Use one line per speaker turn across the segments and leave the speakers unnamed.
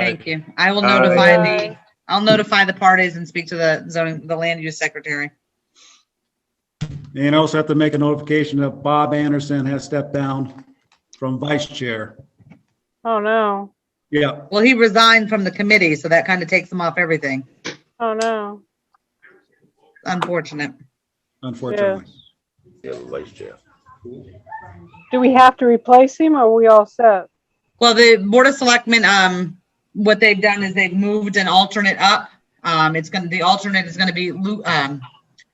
Thank you. I will
All right.
notify the, I'll notify the parties and speak to the zoning, the land use secretary.
And also have to make a notification that Bob Anderson has stepped down from vice chair.
Oh, no.
Yeah,
Well, he resigned from the committee, so that kind of takes him off everything.
Oh, no.
Unfortunate.
unfortunately.
Yeah, vice chair.
Do we have to replace him or are we all set?
Well, the Board of Selectmen, um, what they've done is they've moved an alternate up. Um, it's gonna, the alternate is gonna be Lou, um,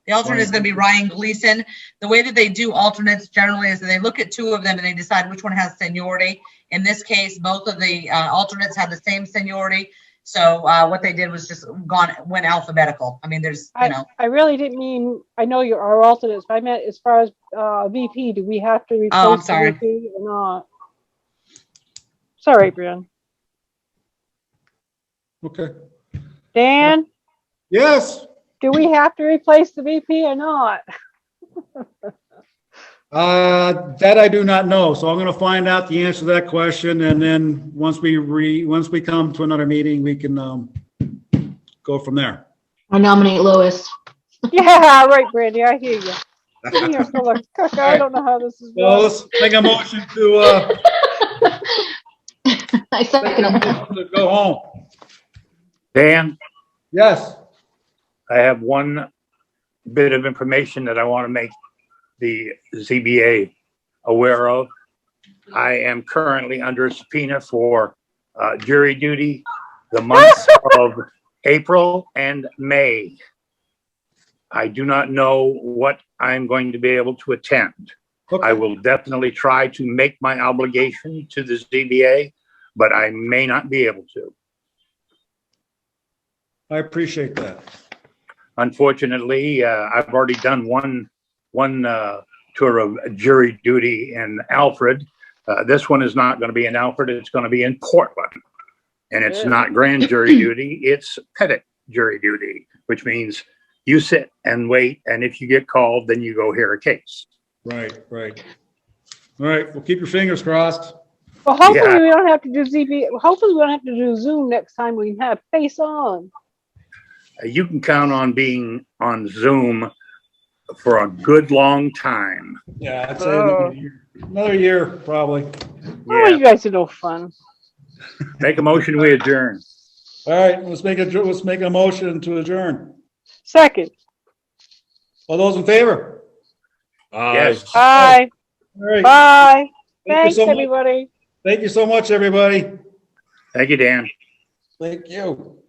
the alternate is gonna be Ryan Gleason. The way that they do alternates generally is that they look at two of them and they decide which one has seniority. In this case, both of the, uh, alternates have the same seniority. So, uh, what they did was just gone, went alphabetical. I mean, there's, you know,
I really didn't mean, I know you're our alternates, but I meant as far as uh, VP, do we have to replace
Oh, I'm
the
sorry.
VP or not? Sorry, Brian.
Okay.
Dan,
Yes,
do we have to replace the VP or not?
uh, that I do not know. So I'm going to find out the answer to that question. And then once we re, once we come to another meeting, we can, um, go from there.
I nominate Lois.
Yeah, right, Brandy, I hear you. Sitting here full of cuck, I don't know how this is
So
going.
let's make a motion to, uh,
I
make a
second him.
motion to go home.
Dan,
Yes.
I have one bit of information that I want to make the ZBA aware of. I am currently under subpoena for uh, jury duty the months of April and May. I do not know what I'm going to be able to attend. I will definitely try to make my obligation to the ZBA, but I may not be able to.
I appreciate that.
unfortunately, uh, I've already done one one uh, tour of jury duty in Alfred. Uh, this one is not going to be in Alfred. It's going to be in Portland, and it's
Yeah.
not grand jury duty. It's petit jury duty, which means you sit and wait, and if you get called, then you go hear a case.
Right, right. All right, well, keep your fingers crossed.
Well, hopefully
Yeah.
we don't have to do ZB, hopefully we don't have to do Zoom next time we have face on.
Uh, you can count on being on Zoom for a good long time.
Yeah, I'd
say another Oh.
year. Another year, probably.
Oh, you guys are no fun.
Make a motion, we adjourn.
All right, let's make a, let's make a motion to adjourn.
Second,
All those in favor?
Yes.
bye,
All right.
bye.
Thank you
Thanks,
so much.
everybody.
Thank you so much, everybody.
Thank you, Dan.
Thank you.